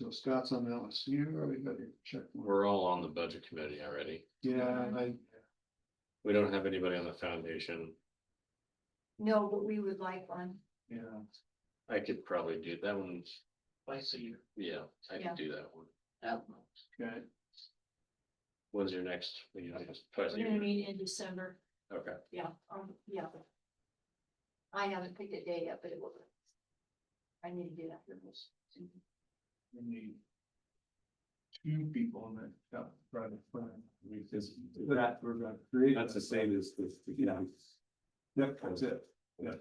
So Scott's on that list, you already got your check. mark. We're all on the budget committee already. Yeah, and I, We don't have anybody on the foundation. No, but we would like one. yeah, I could probably do that one. twice a year. Yeah, I Yeah. could do that one. okay, When's your next? meeting? I guess twice a We're gonna year. meet in December, Okay, yeah, um, yeah. I haven't picked a date yet, but it will. be. I need to do that for this. we need. Two people on that, yeah, private plan. We just, that we're gonna create. That's the same as the, yeah, Yep, that's it, yeah.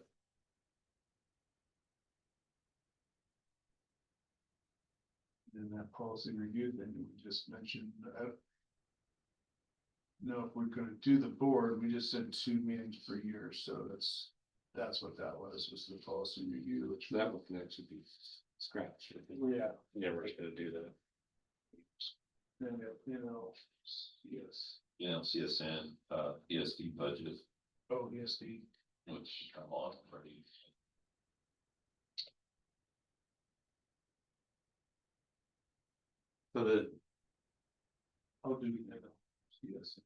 And that policy review thing that we just mentioned, uh. No, if we're gonna do the board, we just said two meetings per year, so that's, that's what that was, was the policy review, which. so that one can actually be scratched. I think. Yeah, Yeah, we're just gonna do that. and, you know, yes, You know, CSN, uh, ESD budget, oh, yes, the, which I'm on pretty. So the, how do we handle? Yes.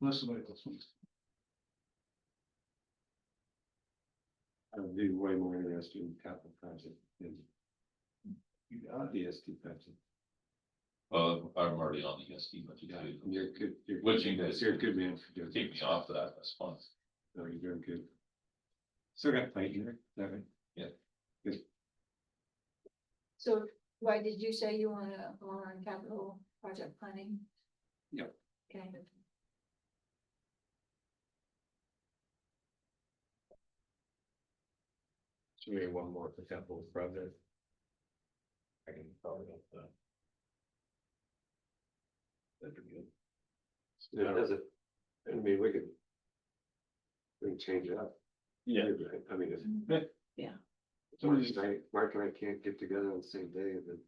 Unless somebody else wants. I'd be way more interested in capital project than You got it. the EST budget. Well, I'm already on the ESD budget too. You're good, you're. What you guys- You're a good man for doing. Take me off that response. No, Oh, you're doing good. Still got fight here, Devin. So why did you say you wanna go on capital project planning? Yep. Okay. so maybe one more for capital project. I can probably get that. That'd be good. It doesn't, I mean, we could. We can change it up. Yeah. I mean, if March Somebody's- and I, Mark and I can't get together on the same day, then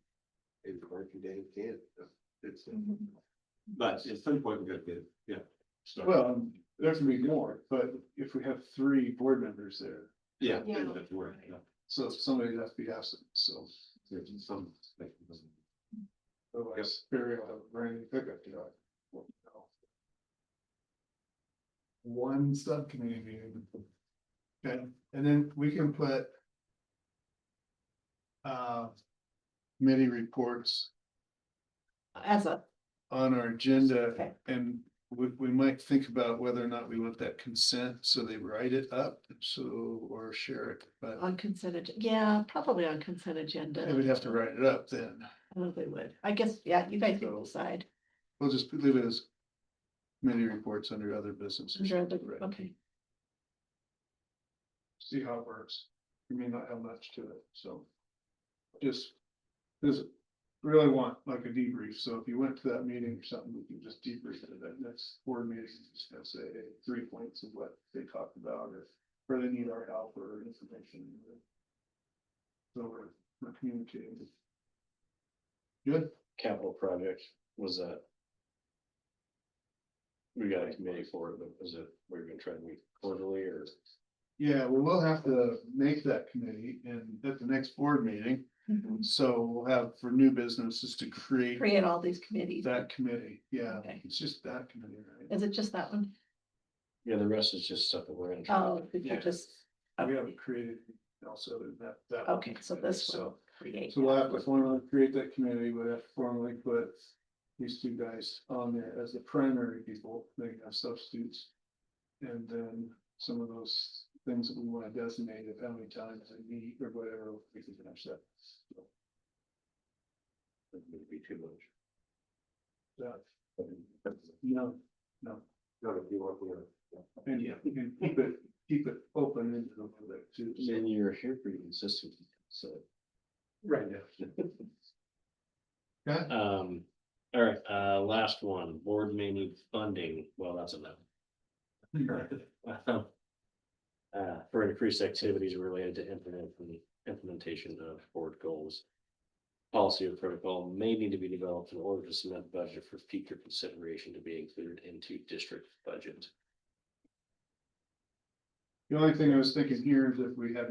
maybe Mark and Dan can't. It's, but at some point we gotta get, yeah. start. Well, um, there can be more, but if we have three board members there, Yeah. Yeah. that's where, yeah. so somebody has to be absent, so. There's some, like, it doesn't- Otherwise, Barry will have a brand new pickup truck. One subcommittee meeting. Okay, and then we can put. Uh. Committee reports As a, on our agenda Okay. and we, we might think about whether or not we want that consent, so they write it up, so, or share it, but. on consent, ag- yeah, probably on consent They would agenda. have to write it up then. I don't know if they would. I guess, yeah, you guys So- can decide. We'll just leave it as committee reports under other business. I'm sure, Right. but- Okay, See how it works. We may not have much to it, so. Just, this really want like a debrief. So if you went to that meeting or something, we can just debrief it at that next board meeting. Just have say three points of what they talked about or where they need our help or information. So we're, we're communicating. Good. Capital project was that. We got a committee for it, but was it, we we're gonna try to meet quarterly or? Yeah, well, we'll have to make that committee and at the next board meeting, Mm-hmm. Mhm. so we'll have for new businesses to create create all these committees. that committee, yeah, Okay. it's just that committee, right? Is it just that one? Yeah, the rest is just stuff that we're gonna. try to- Oh, did Yeah. you just? We haven't created also that, that. one Okay, so this So, will create. so we'll have to formally create that committee, we'll have to formally put these two guys on there as the primary people, they can have substitutes. And then some of those things that we wanna designate, if how many times they meet or whatever, we can finish that. So, It would be too much. that, No, Not if you want, you know. and yeah, you can keep it, keep it open into the public too. so. Then you're here pretty consistent, so. Right now. Okay. Um, all right, uh, last one, board may need funding, well, that's a no. Uh, for increased activities related to implement- implementation of board goals. Policy or protocol may need to be developed in order to submit budget for future consideration to be included into district budget. The only thing I was thinking here is if we had